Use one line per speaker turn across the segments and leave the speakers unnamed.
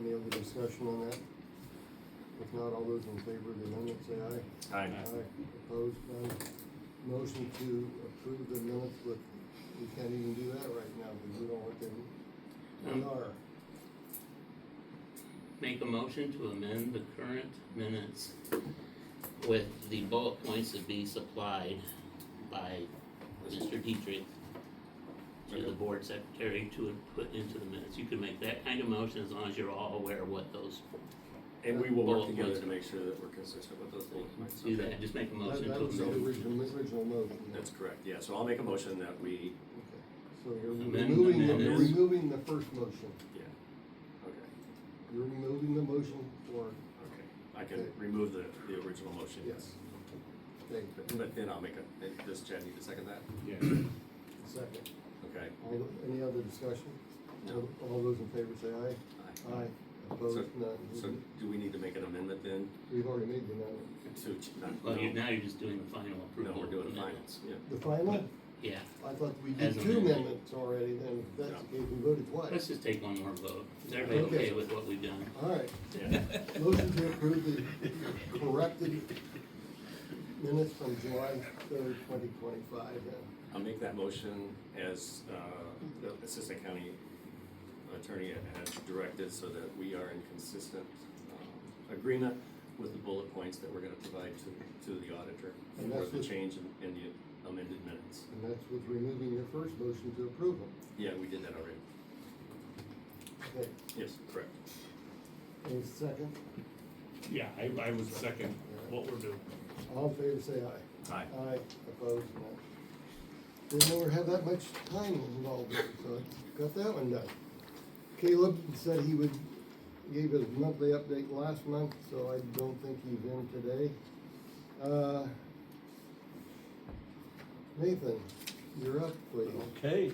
Any other discussion on that? If not, all those in favor of the amendment, say aye.
Aye.
Opposed, none. Motion to approve the minutes with, we can't even do that right now because we don't want them. We
Um,
are.
Make a motion to amend the current minutes with the bullet points to be supplied by Mr. Dietrich to the
Okay.
board secretary to put into the minutes. You can make that kind of motion as long as you're all aware of what those,
And we will work
Bullet
together
points.
to make sure that we're consistent with those bullet points.
do
okay?
that, just make a
That
motion to
that was the
amend.
original, original motion.
That's correct, yeah, so I'll make a motion that we,
Okay. So you're
Amend-
removing, the-
amend
you're
this.
removing the first motion.
yeah, okay,
You're removing the motion for,
okay. I can remove the, the original motion, yes.
yes. Okay,
But, but then I'll make a, and does Chad need to second that?
Yeah.
second.
Okay.
All, any other discussion?
No.
All those in favor say aye.
Aye.
Aye, opposed,
So
none.
do we need to make an amendment then
We've already made the amendment.
to, ch- not,
Well, you,
no,
now you're just doing the final approval.
no, we're doing
of the minutes.
finance, yeah.
The final,
Yeah,
I thought we
As
did two
amended.
amendments already, then if that's the case, we voted
let's
twice.
just take one more vote. Is everybody
Okay.
okay with what we've done?
All right,
Yeah,
motion to approve the corrected minutes from July third, twenty twenty-five then.
I'll make that motion as, uh, the Assistant County Attorney has directed so that we are in consistent, um, agreement with the bullet points that we're gonna provide to, to the auditor
And
for
that's
the
what-
change in, in the amended minutes.
And that's with removing your first motion to approve them.
Yeah, we did that already.
Okay,
Yes, correct.
any second,
Yeah, I, I would second what we're doing.
all in favor say aye.
Aye.
Aye, opposed, none. Didn't ever have that much time involved, in it, so I got that one done. Caleb said he would, gave his monthly update last month, so I don't think he's in today. Uh, Nathan, you're up, please.
Okay.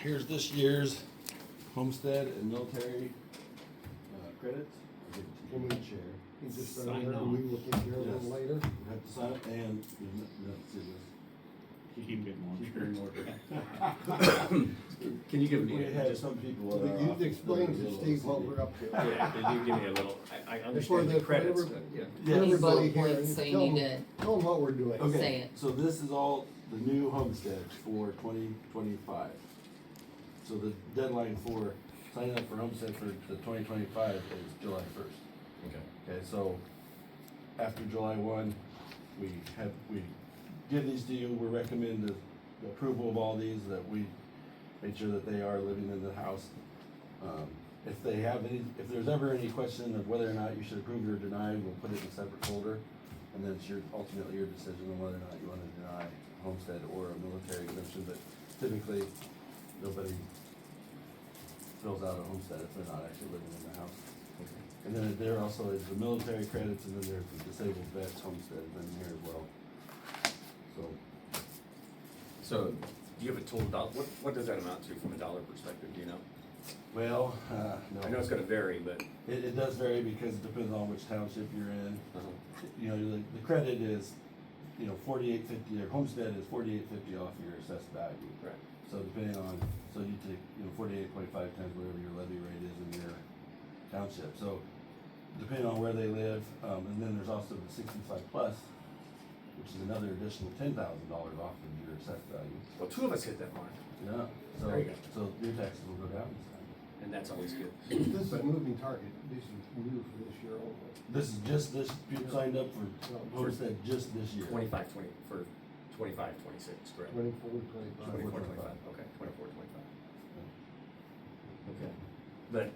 Here's this year's homestead and military uh, credits. I'll give
Can
it to you,
we-
Chair.
You just sign
Sign
there, and we will take care of
Yes.
them later.
You have to sign up and, no, no, it's in
Keep it
this. Keep it in order.
Can you give me?
We had some people. that are
But
off
you explain
the
to
little
Steve what
CD.
we're up to.
Yeah, can you give me a little, I, I understand
the-
the credits,
whatever-
but yeah.
Yeah.
These
Everybody
bullet
here,
points, so you
tell
need
them, tell them what we're doing.
Okay. Say
Okay,
it.
so this is all the new homesteads for twenty twenty-five. So the deadline for signing up for homestead for the twenty twenty-five is July first.
Okay.
Okay, so after July one, we have, we give these to you, we recommend the the approval of all these, that we make sure that they are living in the house. Um, If they have any, if there's ever any question of whether or not you should approve or deny, we'll put it in a separate folder. And then it's your, ultimately your decision on whether or not you wanna deny homestead or a military exemption, but typically, nobody fills out a homestead if they're not actually living in the house. And then there also is the military credits, and then there's the disabled vets homestead in here as well. So,
So, do you have a total dollar, what, what does that amount to from a dollar perspective, do you know?
well, uh,
I know
no,
it's gonna vary, but.
it, it does vary because it depends on which township you're in.
Uh-huh.
You know, the, the credit is, you know, forty-eight fifty, your homestead is forty-eight fifty off your assessed value.
Right.
So depending on, so you take, you know, forty-eight point five times whatever your levy rate is in your township, so depending on where they live, um, and then there's also the sixty-five plus, which is another additional ten thousand dollars off of your assessed value.
Well, two of us hit that mark,
Yeah, so,
There you go.
so your taxes will go down this time.
and that's always good.
This is a moving target, this is new for this year only.
This is just this, you signed up for
For-
homestead just this year.
Twenty-five, twenty, for twenty-five, twenty-six, correct?
Twenty-four, twenty-five.
Twenty-four, twenty-five,
25.
okay, twenty-four, twenty-five. Okay, but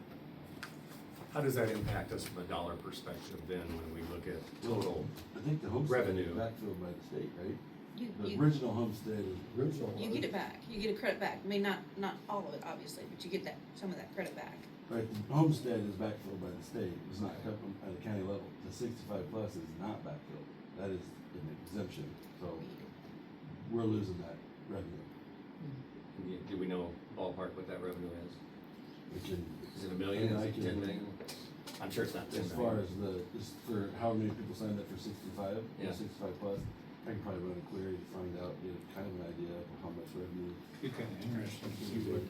how does that impact us from a dollar perspective then when we look at total?
I think the homestead is
Revenue.
backfilled by the state, right?
You,
The
you,
original homestead is
Original one.
you get it back, you get a credit back, I mean, not, not all of it, obviously, but you get that, some of that credit back.
Right, the homestead is backfilled by the state, it's not cut from, at the county level, the sixty-five plus is not backfilled, that is an exemption, so we're losing that revenue.
Do we know ballpark what that revenue is?
We can,
Is it a million,
Yeah, I
is it
can-
ten million? I'm sure it's not ten
as
million.
far as the, just for how many people signed up for sixty-five,
Yeah.
or sixty-five plus, I can probably run a query to find out, get kind of an idea of how much revenue.
It's kind of interesting to see what